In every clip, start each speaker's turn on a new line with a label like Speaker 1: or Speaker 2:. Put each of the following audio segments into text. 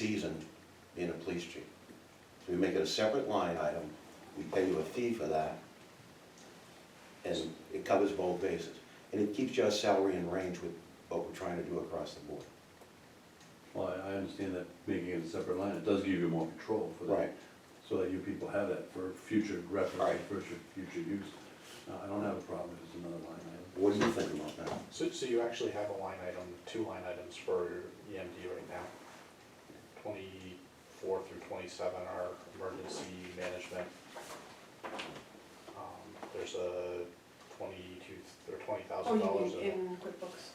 Speaker 1: season being a police chief. So we make it a separate line item, we pay you a fee for that, and it covers both bases. And it keeps your salary in range with what we're trying to do across the board.
Speaker 2: Well, I- I understand that making it a separate line, it does give you more control for that. So that you people have that for future
Speaker 1: Right.
Speaker 2: reference, for future, future use. No, I don't have a problem if it's another line item.
Speaker 1: What do you think about that?
Speaker 3: So, so you actually have a line item, two line items for EMD right now? Twenty-four through twenty-seven are emergency management. Um, There's a twenty-two, or twenty
Speaker 4: Oh,
Speaker 3: thousand dollars
Speaker 4: you mean
Speaker 3: in,
Speaker 4: in QuickBooks?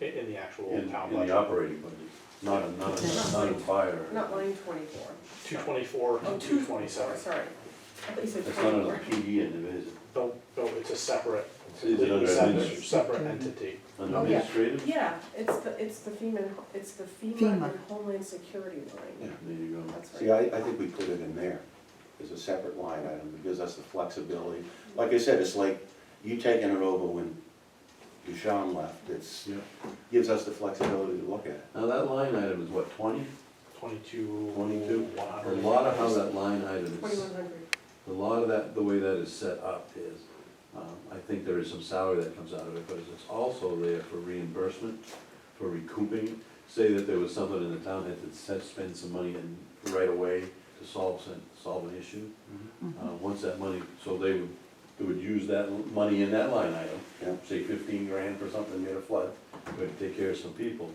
Speaker 3: in the actual
Speaker 2: In,
Speaker 3: town
Speaker 2: in the
Speaker 3: budget.
Speaker 2: operating budget, not a, not a, not a
Speaker 4: Not
Speaker 2: fire.
Speaker 4: Not line twenty-four.
Speaker 3: Two twenty-four,
Speaker 4: Oh,
Speaker 3: two
Speaker 4: 224,
Speaker 3: twenty-seven.
Speaker 4: Sorry. I thought you said
Speaker 2: It's not a E
Speaker 4: twenty-four.
Speaker 2: PE end of it, is it?
Speaker 3: No, no, it's a separate,
Speaker 2: Is it under
Speaker 3: completely separate,
Speaker 2: administ-
Speaker 3: separate entity.
Speaker 2: Under
Speaker 4: Oh, yeah.
Speaker 2: administrative?
Speaker 4: Yeah, it's the, it's the FEMA, it's the FEMA
Speaker 5: FEMA.
Speaker 4: and Homeland Security line.
Speaker 2: There you go.
Speaker 4: That's
Speaker 1: See,
Speaker 4: right.
Speaker 1: I, I think we put it in there as a separate line item, it gives us the flexibility. Like I said, it's like you taking it over when Ducharme left, it's,
Speaker 2: Yeah.
Speaker 1: gives us the flexibility to look at it.
Speaker 2: Now, that line item is what, twenty?
Speaker 3: Twenty-two, one
Speaker 2: A
Speaker 3: hundred.
Speaker 2: lot of how that line item is.
Speaker 4: Twenty-one hundred.
Speaker 2: A lot of that, the way that is set up is, um, I think there is some salary that comes out of it, but it's also there for reimbursement, for recouping. Say that there was something in the town that had said spend some money in right away to solve, some- solve an issue. Uh, Once that money, so they would, they would use that money in that line item,
Speaker 1: Yeah.
Speaker 2: say fifteen grand for something near a flood, but take care of some people.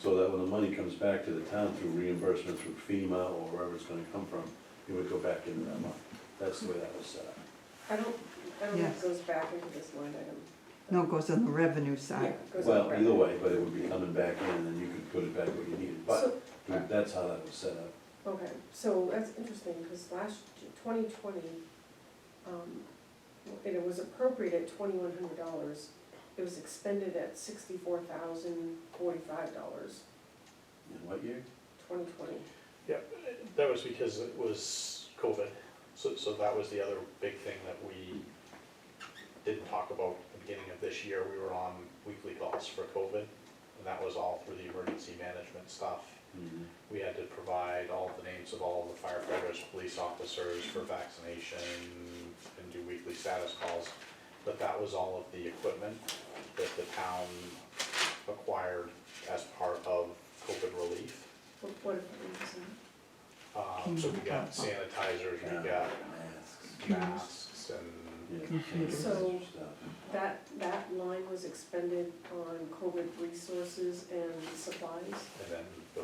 Speaker 2: So that when the money comes back to the town through reimbursement through FEMA or wherever it's gonna come from, it would go back into that line. That's the way that was set up.
Speaker 4: I don't, I don't think
Speaker 5: Yes.
Speaker 4: it goes back into this line item.
Speaker 5: No, it goes on the revenue
Speaker 4: Yeah,
Speaker 5: side.
Speaker 4: it goes up
Speaker 2: Well,
Speaker 4: right.
Speaker 2: either way, but it would be coming back in and then you could put it back where you needed, but
Speaker 4: So,
Speaker 2: that's how that was set up.
Speaker 4: okay, so that's interesting, because last, twenty twenty, um, and it was appropriate at twenty-one hundred dollars. It was expended at sixty-four thousand forty-five dollars,
Speaker 2: In what year?
Speaker 4: twenty twenty.
Speaker 3: That was because it was COVID, so, so that was the other big thing that we didn't talk about at the beginning of this year, we were on weekly calls for COVID, and that was all through the emergency management stuff.
Speaker 2: Mhm.
Speaker 3: We had to provide all the names of all the firefighters, police officers for vaccination, and do weekly status calls, but that was all of the equipment that the town acquired as part of COVID relief.
Speaker 4: What, what if it was in-
Speaker 3: Um, so we got sanitizers, we got
Speaker 2: Masks,
Speaker 3: masks and,
Speaker 2: yeah,
Speaker 5: Computers.
Speaker 4: So-
Speaker 2: stuff.
Speaker 4: That, that line was expended on COVID resources and supplies?
Speaker 3: and then the,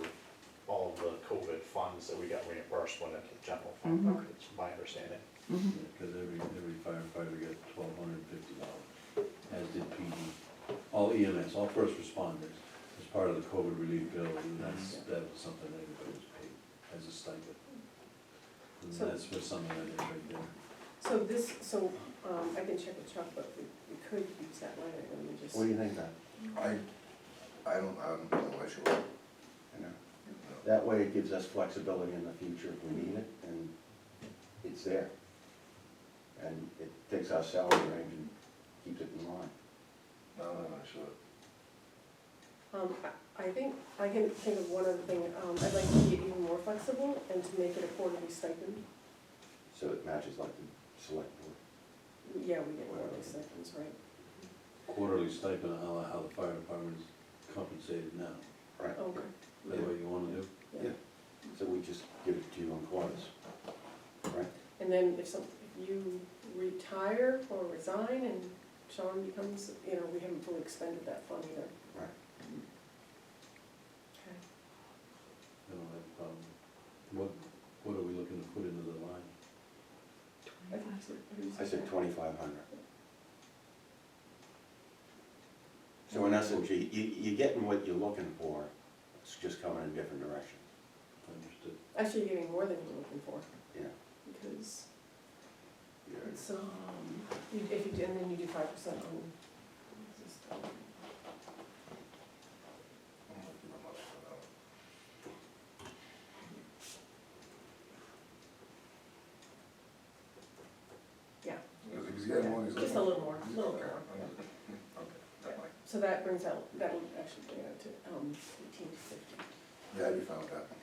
Speaker 3: all of the COVID funds that we got reimbursed went into the general fund,
Speaker 5: Mhm.
Speaker 3: it's my understanding.
Speaker 5: Mhm.
Speaker 2: Because every, every firefighter got twelve hundred and fifty dollars, as did PD, all EMS, all first responders, as part of the COVID relief bill, and that's, that was something that everybody was paid as a stipend. And
Speaker 4: So-
Speaker 2: that's for something that is right there.
Speaker 4: So this, so, um, I can check with Chuck, but we, we could use that line item and just.
Speaker 1: What do you think, Matt?
Speaker 6: I, I don't, I'm not sure.
Speaker 1: You know? That way it gives us flexibility in the future if we need it, and it's there. And it takes our salary range and keeps it in line.
Speaker 6: No, I'm not sure.
Speaker 4: Um, I, I think, I can think of one other thing, um, I'd like to be even more flexible and to make it a quarterly stipend.
Speaker 1: So it matches like the select board.
Speaker 4: Yeah, we get quarterly stipends, right?
Speaker 2: Quarterly stipend, how, how the fire department is compensated now,
Speaker 4: Okay,
Speaker 2: is that what you wanna do?
Speaker 4: yeah.
Speaker 1: Yeah. So we just give it to you in quarters. Right?
Speaker 4: And then if some, if you retire or resign and Sean becomes, you know, we haven't fully expended that fund either.
Speaker 1: Right.
Speaker 4: Okay.
Speaker 2: I don't have a problem. What, what are we looking to put into the line?
Speaker 4: I think that's what- what do you
Speaker 1: I
Speaker 4: say?
Speaker 1: said twenty-five hundred. So in essence, you, you- you're getting what you're looking for, it's just coming in different directions.
Speaker 2: Understood.
Speaker 4: Actually, you're getting more than you're looking for,
Speaker 1: Yeah.
Speaker 4: because it's, um, you, if you, do- and then you do five percent on. um, this is-
Speaker 6: I'm not sure about that.
Speaker 4: Yeah.
Speaker 6: Because he's getting one, he's
Speaker 4: Just a
Speaker 6: like-
Speaker 4: little more, a little
Speaker 6: Okay,
Speaker 4: more.
Speaker 6: okay, that might-
Speaker 4: So that brings out, that would actually bring out to, um, eighteen to fifty.
Speaker 6: Yeah, you found that.